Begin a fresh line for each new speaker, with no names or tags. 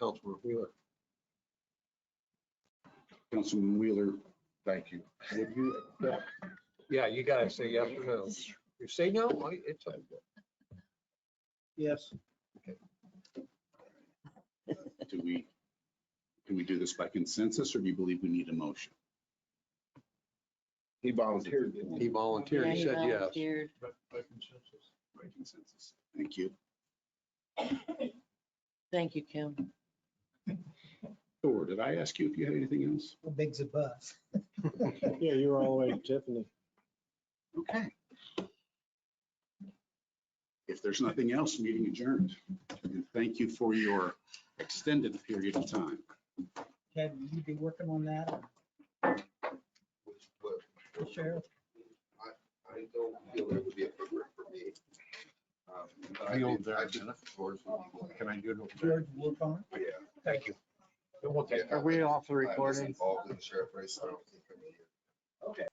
Councilman Wheeler. Councilman Wheeler, thank you. Would you accept? Yeah, you gotta say yes or no. You say no, I- it's, a-
Yes.
Do we, can we do this by consensus, or do you believe we need a motion?
he volunteered. didn't
By
He volunteered, he said yes.
volunteered.
consensus.
consensus. Thank you.
Thank you, Kim.
Thor, did I ask you if you had anything else?
How big's a bus?
Yeah, you were all the way to Tiffany.
Okay. If there's nothing else, meeting adjourned. And thank you for your extended period of time.
Chad, will you be working on that,
But
or the sheriff?
I don't feel it would be appropriate for me. Um, but I
Be
think-
over there
I
a
think
minute.
George would be-
Can I do it? over
George, work on
Yeah.
Thank you.
Yeah,
Are we off the
I was
recording?
Involved in the sheriff race, I don't think I'm here.
it? Okay.